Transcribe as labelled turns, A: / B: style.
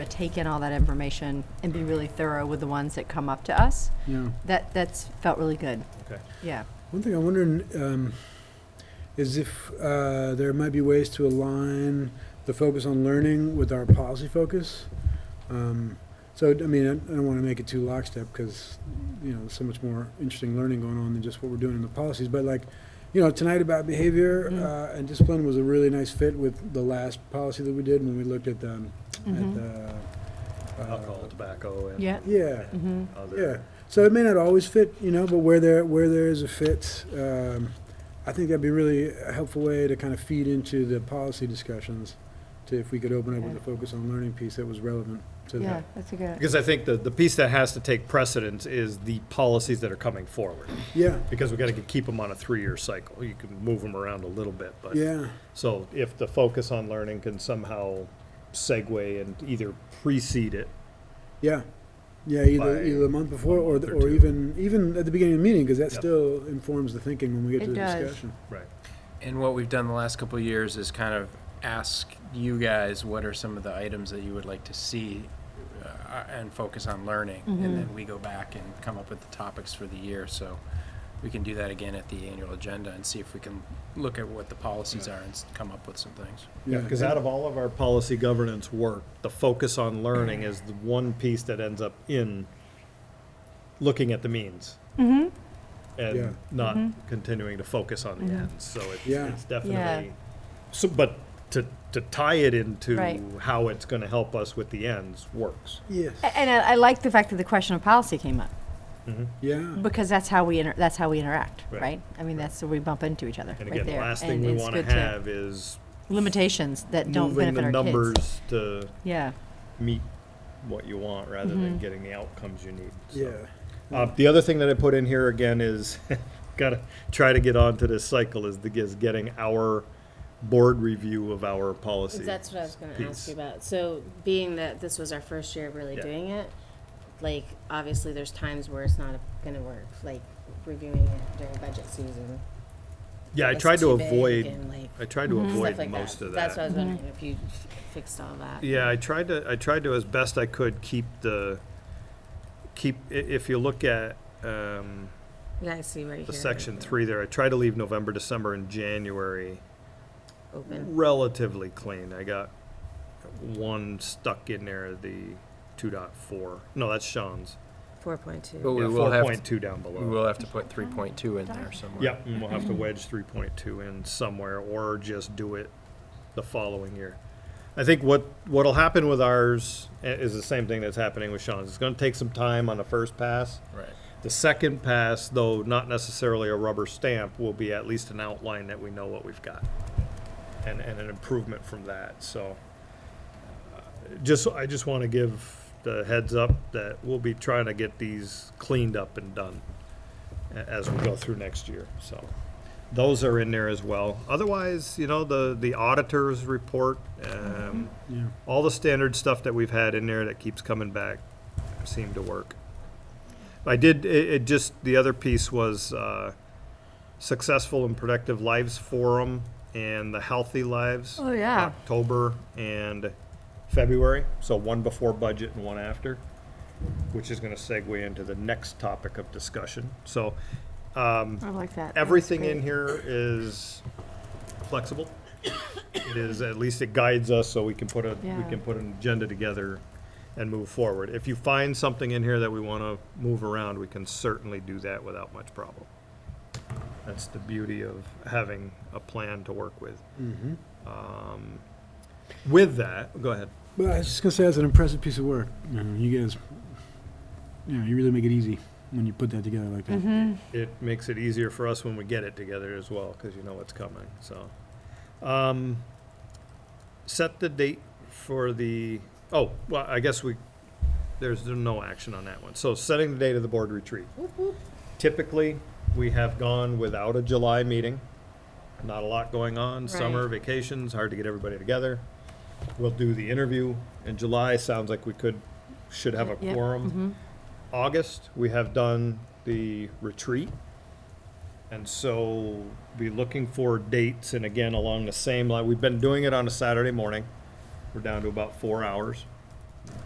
A: to take in all that information and be really thorough with the ones that come up to us.
B: Yeah.
A: That, that's felt really good.
C: Okay.
A: Yeah.
B: One thing I'm wondering um, is if uh, there might be ways to align the focus on learning with our policy focus. Um, so, I mean, I, I don't want to make it too lockstep because, you know, there's so much more interesting learning going on than just what we're doing in the policies. But, like, you know, tonight about behavior
A: Mhm.
B: uh, and discipline was a really nice fit with the last policy that we did when we looked at the. At
A: Mhm.
B: the uh,
C: Alcohol, tobacco, and
A: Yeah.
B: Yeah.
A: hmm
B: Yeah,
C: other.
B: so it may not always fit, you know, but where there, where there is a fit, um, I think that'd be really a helpful way to kind of feed into the policy discussions, to if we could open up with a focus on learning piece that was relevant to
A: Yeah,
B: that.
A: that's a good.
C: Because I think the, the piece that has to take precedence is the policies that are coming forward.
B: Yeah,
C: Because we gotta keep them on a three-year cycle. You can move them around a little bit, but.
B: yeah,
C: So if the focus on learning can somehow segue and either precede it,
B: yeah, yeah, either,
C: By
B: either the month before or,
C: month
B: the-
C: or
B: or
C: two.
B: even, even at the beginning of the meeting, because that
C: Yep.
B: still informs the thinking when we get
A: It
B: to the
A: does.
B: discussion.
C: right,
D: And what we've done the last couple of years is kind of ask you guys what are some of the items that you would like to see uh, and focus on learning.
A: Mhm.
D: And then we go back and come up with the topics for the year. So we can do that again at the annual agenda and see if we can look at what the policies are and s- come up with some things.
C: Yeah, because out of all of our policy governance work, the focus on learning is the one piece that ends up in looking at the means.
B: Mm-hmm. Yeah.
C: And not
A: Mm-hmm.
C: continuing to focus on the ends, so it's,
B: Yeah.
C: it's definitely, so, but to, to tie it into
A: Right.
C: how it's gonna help us with the ends works.
B: Yes,
A: And I, I like the fact that the question of policy came up
B: yeah,
A: because that's how we inter, that's how we interact, right?
C: Right.
A: I mean, that's where we bump into each other
C: And
A: right
C: again, the
A: there.
C: last thing we
A: it's
C: wanna
A: good to-
C: have is
A: limitations that don't
C: moving
A: benefit
C: the
A: our kids.
C: numbers to
A: Yeah.
C: meet what you want rather
A: Mm-hmm.
C: than getting the outcomes you need. so.
B: yeah,
C: Uh, the other thing that I put in here again is, gotta try to get onto this cycle is the, is getting our board review of our policy.
E: That's what I was going to ask
C: piece.
E: you about. So, being that this was our first year of really
C: Yeah.
E: doing it, like obviously there's times where it's not going to work, like reviewing it during budget season.
C: Yeah, I
E: It's
C: tried to
E: too big
C: avoid,
E: and, like,
C: I tried to
E: stuff
C: avoid
E: like
C: most
E: that.
C: of
E: That's what I
C: that.
E: was wondering if you f- fixed all that.
C: Yeah, I tried to, I tried to as best I could keep the, keep, i- if you look at, um,
E: Yeah, I see right here.
C: the section three there, I tried to leave November, December and January
E: Open.
C: relatively clean. I got one stuck in there, the two dot four. No, that's Sean's.
E: 4.2.
D: But we
C: Yeah,
D: will have,
C: Four point two down below.
D: we will have to put 3.2 in there somewhere.
C: Yep, and we'll have to wedge three point two in somewhere, or just do it the following year. I think what, what'll happen with ours i- is the same thing that's happening with Sean's. It's gonna take some time on the first pass.
D: Right.
C: The second pass, though not necessarily a rubber stamp, will be at least an outline that we know what we've got. And, and an improvement from that, so. uh, Just, I just wanna give the heads up that we'll be trying to get these cleaned up and done a- as we go through next year, so. Those are in there as well. Otherwise, you know, the, the auditor's report, um,
B: yeah.
C: all the standard stuff that we've had in there that keeps coming back seemed to work. I did, it, it just, the other piece was, uh, Successful and Productive Lives Forum and the Healthy Lives.
A: Oh, yeah.
C: October and February, so one before budget and one after, which is gonna segue into the next topic of discussion. So, um,
A: I like that.
C: everything in here is flexible. It is, at least it guides us so we can put a, we
A: Yeah.
C: can put an agenda together and move forward. If you find something in here that we want to move around, we can certainly do that without much problem. That's the beauty of having a plan to work with. Um, With that, go ahead.
B: But I was just gonna say, that's an impressive piece of work, you know, you guys, you know, you really make it easy when you put that together like that.
C: it makes it easier for us when we get it together as well, because you know what's coming, so. Um, set the date for the, oh, well, I guess we, there's no action on that one. So setting the date of the board retreat. Typically, we have gone without a July meeting. Not a lot going on, summer
E: Right.
C: vacations, hard to get everybody together. We'll do the interview in July, sounds like we could, should have a
A: Yeah,
C: quorum. August, we have done the retreat. And so be looking for dates and again, along the same line, we've been doing it on a Saturday morning. We're down to about four hours.